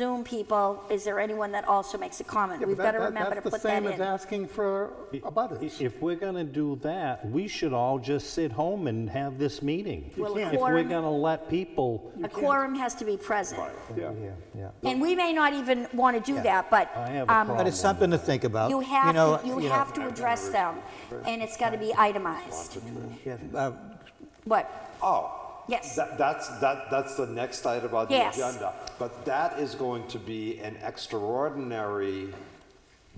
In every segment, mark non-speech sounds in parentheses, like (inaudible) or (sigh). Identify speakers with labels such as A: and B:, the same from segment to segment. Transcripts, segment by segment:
A: Zoom people, is there anyone that also makes a comment?
B: Yeah, but
A: We've
B: that-
A: got to
B: that-
A: remember to put
B: That's
A: that
B: the same as
A: in.
B: asking for a butters.
C: If we're going to do that, we should all just sit home and have this meeting.
A: Well, a
C: If we're
A: quorum-
C: going to let people,
A: A quorum has to be present.
B: Yeah.
A: And we may not even want to do that, but
C: I have a
A: um,
C: problem.
D: But it's something to think about.
A: you have,
D: know,
A: to- you
D: know,
A: have to address them, and it's got to be itemized.
D: yeah, uh,
A: What?
E: Oh.
A: Yes.
E: That, that's, that, that's the next item on the
A: Yes.
E: agenda. But that is going to be an extraordinary,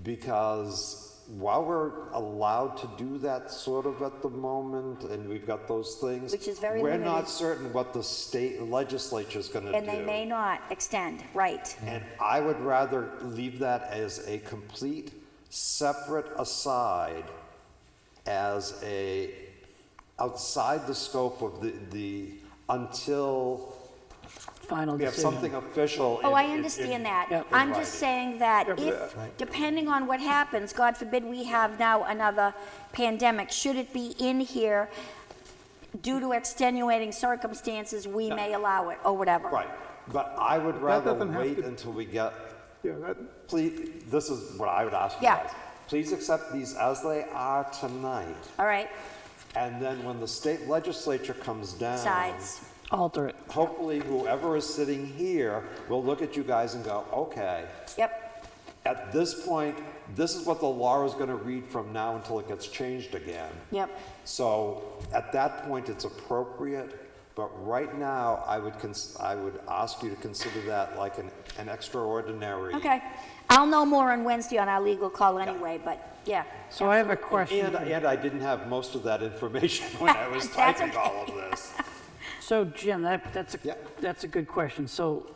E: because while we're allowed to do that sort of at the moment, and we've got those things.
A: Which is very
E: We're not
A: limited.
E: certain what the state legislature's gonna do.
A: And they may not extend, right.
E: And I would rather leave that as a complete, separate aside, as a, outside the scope of the, the, until
F: final
E: we have
F: decision.
E: something official.
A: Oh,
E: in-
A: I
E: in- in-
A: understand that.
E: in
A: I'm just saying
E: writing.
A: that if, depending on what happens, God forbid we have now another pandemic, should it be in here, due to extenuating circumstances, we may allow it, or whatever.
E: Right, but I would rather
B: doesn't have
E: wait
B: to-
E: until we get,
B: Yeah, that-
E: please, this is what I would ask you
A: Yeah.
E: guys. Please accept these as they are tonight,
A: All right,
E: and then when the state legislature comes
A: Um,
E: down.
A: sides.
F: Alter it.
E: hopefully whoever is sitting here will look at you guys and go, okay,
A: Yep,
E: at this point, this is what the law is gonna read from now until it gets changed again.
A: yep.
E: So at that point, it's appropriate, but right now, I would cons, I would ask you to consider that like an, an extraordinary.
A: Okay. I'll know more on Wednesday on our legal call anyway, but, yeah.
F: So I have a
E: And,
F: question.
E: and I didn't have most of that information when I was
A: (laughs) That's
E: typing
A: okay.
E: all of this.
F: So Jim, that, that's, a
E: Yeah.
F: that's a good question. So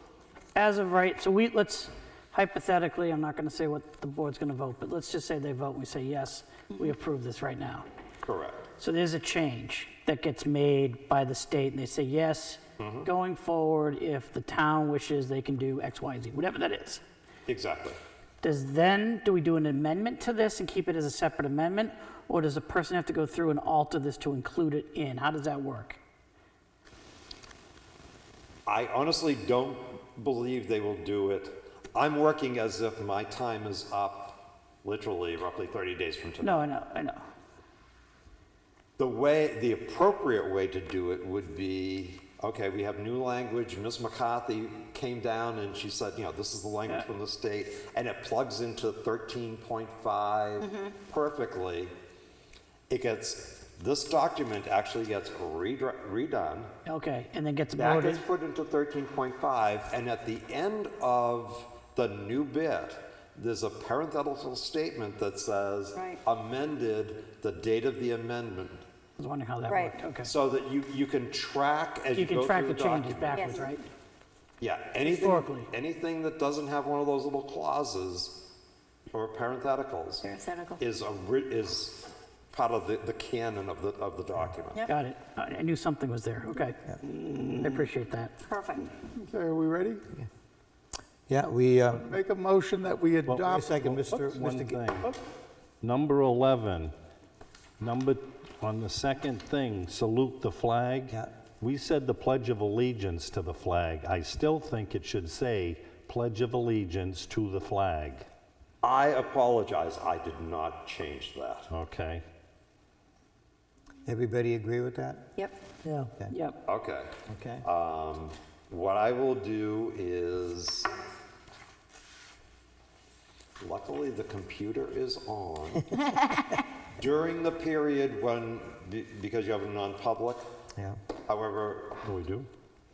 F: as of right, so we, let's hypothetically, I'm not going to say what the board's going to vote, but let's just say they vote and we say, yes, we approve this right now.
E: Correct.
F: So there's a change that gets made by the state and they say, yes, going forward, if the town wishes, they can do X, Y, and Z, whatever that is.
E: Exactly.
F: Does then, do we do an amendment to this and keep it as a separate amendment? Or does a person have to go through and alter this to include it in? How does that work?
E: I honestly don't believe they will do it. I'm working as if my time is up, literally roughly 30 days from today.
F: No, I know, I know.
E: The way, the appropriate way to do it would be, okay, we have new language. Ms. McCarthy came down and she said, you know, this is the language from the state, and it plugs into 13.5 perfectly. It gets, this document actually gets redra- redone.
F: Okay, and then gets
E: That
F: voted.
E: gets put into thirteen point five, and at the end of the new bit, there's a parenthetical statement that says
A: Right.
E: amended the date of the amendment,
F: I was wondering how that
A: Right.
F: worked, okay.
E: so that you, you can track as you
F: You
E: go
F: can
E: through
F: track
E: the
F: the changes
E: document.
F: backwards,
A: Yes.
F: right?
E: Yeah, anything,
F: Historically.
E: anything that doesn't have one of those little clauses or parentheticals
A: Parenthetical.
E: is a, ri- is part of the, the canon of the, of the document.
F: Got it. I I knew something was there, okay. I appreciate that.
A: Perfect.
B: Okay, are we ready?
D: Yeah, we, uh,
B: Make a motion that we
C: wait
B: adopt.
C: a
D: wait a second, Mr.
C: one
D: Mr. Ga-
C: thing. Number 11, number, on the second thing, salute the flag.
D: Yeah.
C: We said the Pledge of Allegiance to the flag. I still think it should say Pledge of Allegiance to the flag,
E: I apologize, I did not change that.
C: okay?
D: Everybody agree with that?
A: Yep.
D: Yeah.
F: Yep,
E: Okay.
D: Okay.
E: Um, What I will do is, luckily the computer is
A: (laughs)
E: on. During the period when, be- because you have a non-public,
D: Yeah.
E: however,
C: Oh, We do?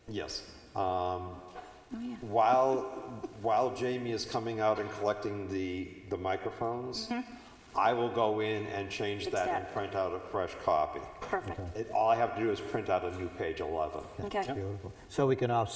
E: yes. um,
A: Oh, yeah.
E: While, while Jamie is coming out and collecting the, the microphones, I will go in and change
A: Mm-hmm. Fix
E: that
A: that.
E: and print out a fresh copy.
A: Perfect.
E: It- All I have to do is print out a new page 11.
A: Okay.
D: Beautiful. So we can all